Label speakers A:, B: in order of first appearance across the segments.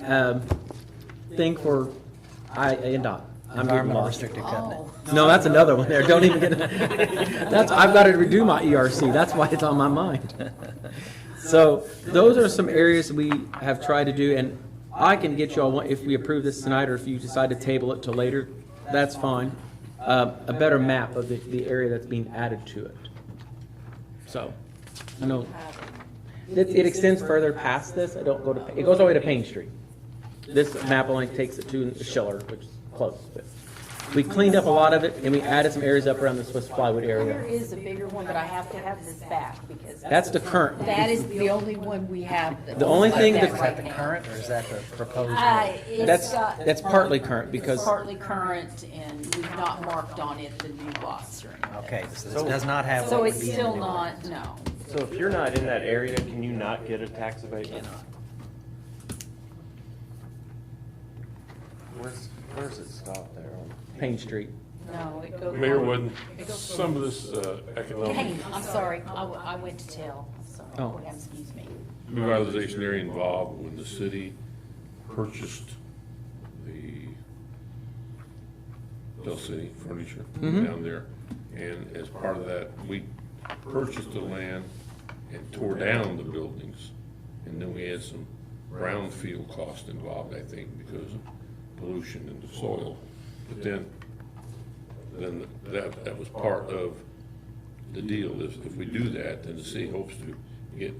A: um, thing for I, and dot. I'm getting
B: Environmental
A: lost.
B: restricted covenant.
A: No, that's another one there. Don't even get, that's, I've got to redo my ERC. That's why it's on my mind. So those are some areas we have tried to do and I can get you all, one- if we approve this tonight or if you decide to table it till later, that's fine. Uh, a better map of the, the area that's being added to it. So, I know, it, it extends further past this. I don't go to, it goes all the way to Payne Street. This map only takes it to Schiller, which is close, but we cleaned up a lot of it, and we added some areas up around the Swiss plywood
C: There
A: area.
C: is a bigger one, but I have to have this back because
A: That's the current.
C: that is the only one we have. that
A: The only
C: looks like
A: thing
C: that
A: that-
B: Is that the
C: right now.
B: current or is that the proposed?
C: Oh, Uh,
A: That's,
C: it's, uh,
A: that's partly current,
C: it's
A: because
C: partly current and we've not marked on it the new lots or anything.
B: Okay, so this does not have what
C: So
B: would
C: it's
B: be in the
C: still
B: new-
C: not, no.
D: So if you're not in that area, can you not get a tax abatement? Where's, where's it stop there?
A: Payne Street.
C: No, it goes.
E: Mayor, when some of this uh, economic
C: Hey, I'm sorry, I, w- I went to tell, sorry,
A: Oh.
C: Board, excuse me.
E: revitalization area involved, when the city purchased the Del City furniture down there, and as part of that, we purchased the land and tore down the buildings, and then we had some brownfield cost involved, I think, because of pollution in the soil. But then, then that, that was part of the deal is if we do that, then the city hopes to get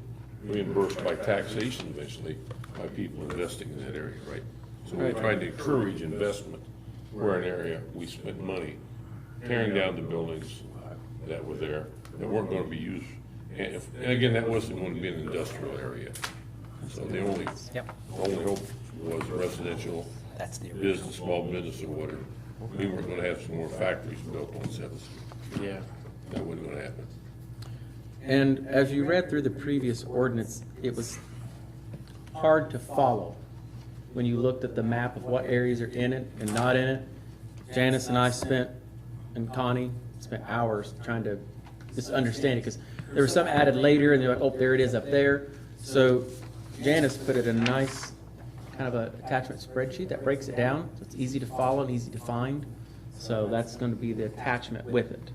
E: reimbursed by taxation eventually by people investing in that area, right? So we're trying to encourage investment where an area, we spent money tearing down the buildings that were there, that weren't gonna be used. And if, and again, that wasn't gonna be an industrial area. So the only,
B: Yep.
E: only hope was residential
B: That's the original.
E: business, small business or whatever. We were gonna have some more factories built on Seventh Street. Yeah. That wasn't gonna happen.
A: And as you read through the previous ordinance, it was hard to follow when you looked at the map of what areas are in it and not in it. Janice and I spent, and Connie spent hours trying to just understand it, because there was some added later, and they're like, oh, there it is up there. So Janice put it in a nice, kind of a attachment spreadsheet that breaks it down, so it's easy to follow and easy to find. So that's gonna be the attachment with it.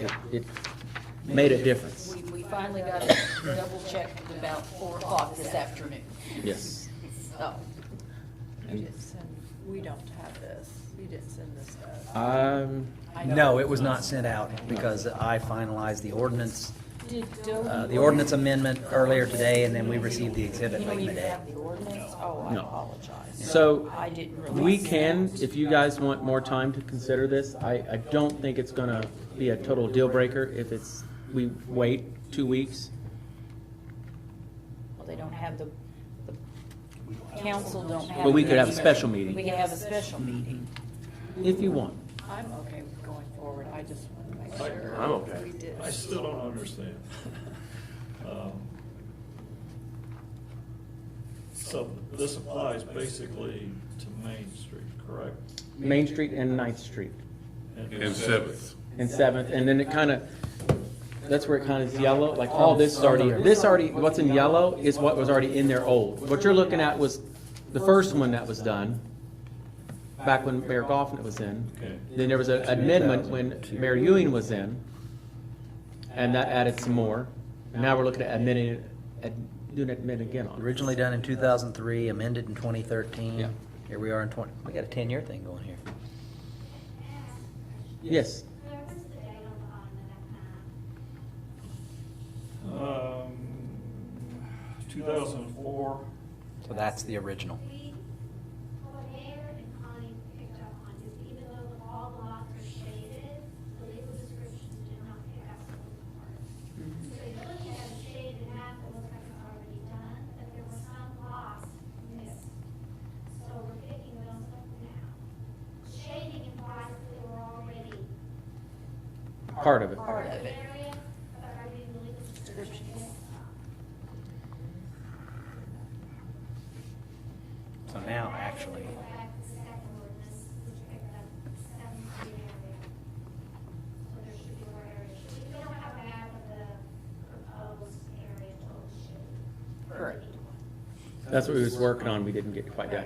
A: It, it made a difference,
C: We, we finally got it double checked at about four o'clock this afternoon, Oh.
A: yes.
C: so.
A: And
F: We don't have this. You didn't send this to us.
A: Um,
C: I know-
B: No, it was not sent out because I finalized the ordinance,
C: Did
B: uh,
C: Doe,
B: the ordinance amendment earlier today and then we received the
C: you
B: exhibit
C: don't
B: late in
C: even
B: the day.
C: have the ordinance? Oh, I
A: No.
C: apologize.
A: So,
C: I didn't realize.
A: we
C: that.
A: can, if you guys want more time to consider this, I, I don't think it's gonna be a total deal breaker if it's, we wait two weeks.
C: Well, they don't have the, the council don't have.
A: But we could have a
C: the-
A: special meeting. Mm-hmm.
C: We could have a special meeting.
A: If you want.
F: I'm okay with going forward. I just want to make sure.
D: I'm okay.
F: We did.
G: I still don't understand. Um, So this applies basically to Main Street, correct?
A: Main Street and Ninth Street
E: And Seventh.
A: and Seventh, and then it kinda, that's where it kinda is yellow, like all this is already, this already, what's in yellow is what was already in there old. What you're looking at was the first one that was done, back when Mayor Goffin was in.
G: Okay.
A: Then there was a- an amendment when Mayor Ewing was in, and that added some more. Now we're looking at amending, it- at doing it amend again on. it.
B: Originally done in two thousand three, amended in twenty
A: Yeah.
B: thirteen. Here we are in twenty, we got a ten-year thing going here.
A: Yes,
H: There was the date on the, on the, um,
G: Um, Two thousand and four,
B: So that's the original.
H: we, what Mayor and Connie picked up on is even though the all lots are shaded, the legal description did not pick up on the parts. So if you look at a shaded map, it looks like it's already done, but there were some lots missed. So we're picking those up now. Shading implies that they were already
A: part of it.
H: part of the area, but are we in the legal description?
B: So now, actually,
H: Go back to the second ordinance, which picked up seven feet area. So there should be more area. Should We don't have that with the proposed area total should.
C: Correct.
A: That's what we was working on, we didn't get quite done.